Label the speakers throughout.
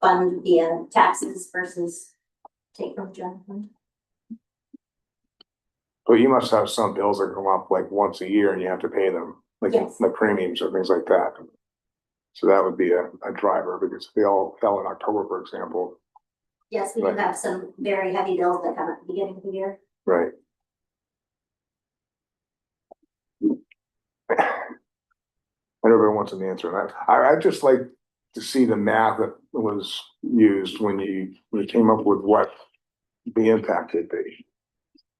Speaker 1: fund via taxes versus take from general fund.
Speaker 2: But you must have some bills that come up like once a year and you have to pay them, like
Speaker 1: Yes.
Speaker 2: the premiums or things like that. So that would be a, a driver because if they all fell in October, for example,
Speaker 1: Yes, we do
Speaker 2: Right.
Speaker 1: have some very heavy bills that come at the beginning of the year.
Speaker 2: right? And Everybody wants an answer. And I, I, I'd just like to see the math that was used when you, when you came up with what the impact could be.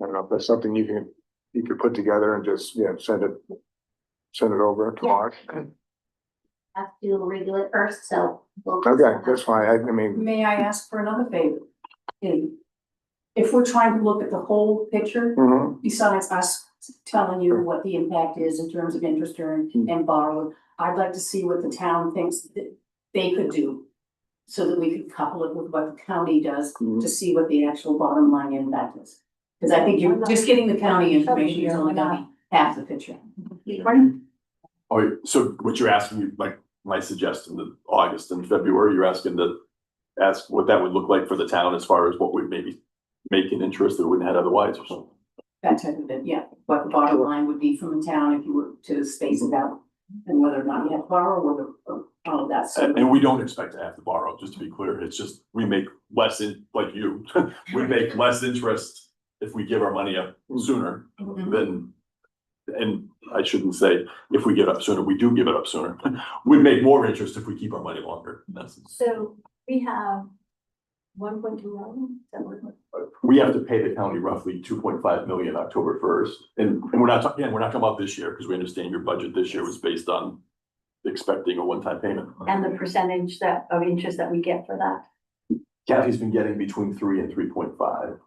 Speaker 2: I don't know if that's something you can, you could put together and just, you know, send it, send it over to
Speaker 1: Yeah.
Speaker 2: Mark.
Speaker 1: Have to review it first, so. we'll-
Speaker 2: Okay, that's fine. I, I mean,
Speaker 3: May I ask for another favor? In- If we're trying to look at the whole picture,
Speaker 2: mhm,
Speaker 3: besides us telling you what the impact is in terms of interest earned and borrowed, I'd like to see what the town thinks that they could do. So that we could couple it with what the county does to
Speaker 2: Mhm.
Speaker 3: see what the actual bottom line impact is. Because I think you're just getting the county information, you're only getting half the picture.
Speaker 4: Oh, you- so what you're asking, you- like, my suggestion that August and February, you're asking to ask what that would look like for the town as far as what would maybe make an interest that wouldn't have otherwise or something.
Speaker 3: That type of it, yeah, what the bottom line would be from the town if you were to space it out. And whether or not you have to borrow, whether, or all of that, so.
Speaker 4: And, and we don't expect to have to borrow, just to be clear. It's just, we make less in, like you, we make less interest if we give our money up sooner
Speaker 3: Mm-hmm.
Speaker 4: than, and I shouldn't say if we get up sooner, we do give it up sooner. We make more interest if we keep our money longer. That's-
Speaker 5: So we have one point two million, is that what? it was?
Speaker 4: we have to pay the county roughly two point five million October first. And, and we're not, talking- again, we're not talking about this year, because we understand your budget this year was based on expecting a one-time payment.
Speaker 5: And the percentage that, of interest that we get for that.
Speaker 4: Kathy's been getting between three and three point five.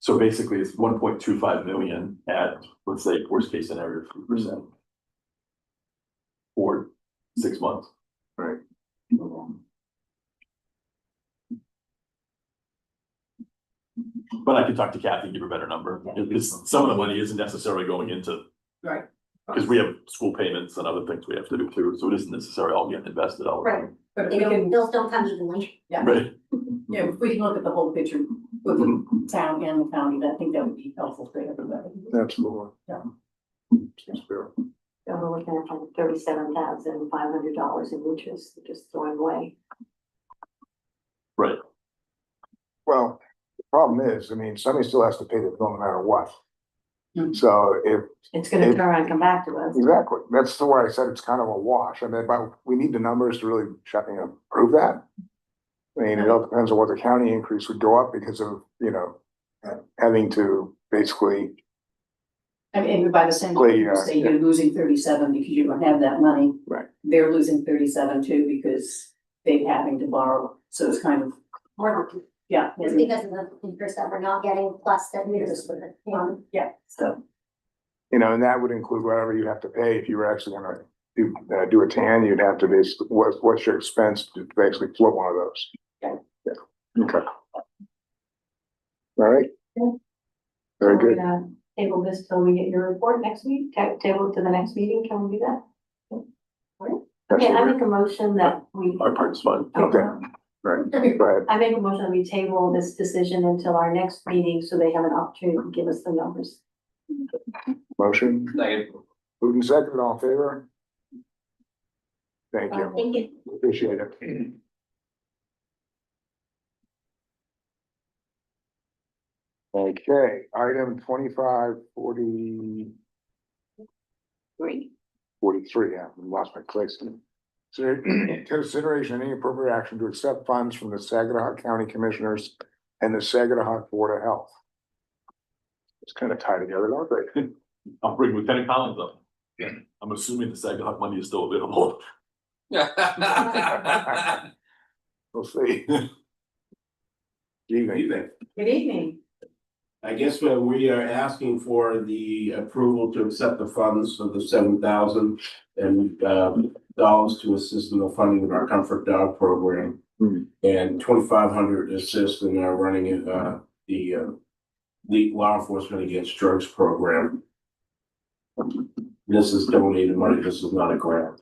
Speaker 4: So basically, it's one point two five million at, let's say, worst case scenario, three percent. Or six months.
Speaker 2: Right. mm-hmm.
Speaker 4: But I could talk to Kathy, and give her a better number, because some of the money isn't necessarily going into.
Speaker 3: Right.
Speaker 4: Because we have school payments and other things we have to do too, so it isn't necessarily all getting invested all the time.
Speaker 3: But if
Speaker 1: They
Speaker 3: we
Speaker 1: don't,
Speaker 3: can,
Speaker 1: bills don't come evenly.
Speaker 4: Right.
Speaker 3: yeah, if we can look at the whole picture with
Speaker 4: Mm-hmm.
Speaker 3: the town and the county, I think that would be helpful for everybody.
Speaker 2: absolutely.
Speaker 3: Yeah.
Speaker 2: Seems fair.
Speaker 5: So we're looking at like thirty-seven thousand five hundred dollars in interest, just thrown away.
Speaker 2: Well, the problem is, I mean, somebody still has to pay the bill no matter what.
Speaker 3: Mm.
Speaker 2: So if,
Speaker 5: It's gonna turn around and come back to us.
Speaker 2: exactly, that's the way I said it's kind of a wash. I mean, but we need the numbers to really check and prove that. I mean, it all depends on what the county increase would go up because of, you know, having to basically,
Speaker 3: I mean, and by the same,
Speaker 2: Well, yeah,
Speaker 3: token, say you're losing thirty-seven because you don't have that money.
Speaker 2: Right.
Speaker 3: They're losing thirty-seven too because they're having to borrow, so it's kind of,
Speaker 1: More than-
Speaker 3: yeah.
Speaker 1: It's because of the interest that we're not getting plus that we're just with it.
Speaker 3: Um, Yeah, so,
Speaker 2: you know, and that would include whatever you have to pay if you were actually gonna do, uh, do a tan, you'd have to basically, what, what's your expense to basically float one of those?
Speaker 3: Yeah.
Speaker 2: Yeah, okay. All right.
Speaker 5: Yeah.
Speaker 2: Very
Speaker 5: We're
Speaker 2: good.
Speaker 5: gonna Table this till we get your report next week, Ta- table it to the next meeting, can we do that? Okay, I make a motion that we.
Speaker 4: Our part's fine.
Speaker 2: Okay. Go ahead.
Speaker 5: I make a motion that we table this decision until our next meeting, so they have an opportunity to give us the numbers.
Speaker 2: Motion. Moving second, all in favor? Thank you.
Speaker 1: Thank you.
Speaker 2: Appreciate it. Okay, item twenty-five forty.
Speaker 5: Great.
Speaker 2: forty-three, I lost my place. Consider- Consideration and any appropriate action to accept funds from the Saginaw County Commissioners and the Saginaw Board of Health. It's kind of tied together, aren't they?
Speaker 4: I'll bring Lieutenant Collins up. I'm assuming the Sagahawk money is still available.
Speaker 2: We'll see. Evening.
Speaker 6: Evening.
Speaker 3: good evening.
Speaker 6: I guess what we are asking for the approval to accept the funds for the seven thousand and uh, dollars to assist in the funding of our comfort dog program.
Speaker 2: Hmm.
Speaker 6: And twenty-five hundred to assist in our running uh, the uh, the law enforcement against drugs program. This is donated money. This is not a grant.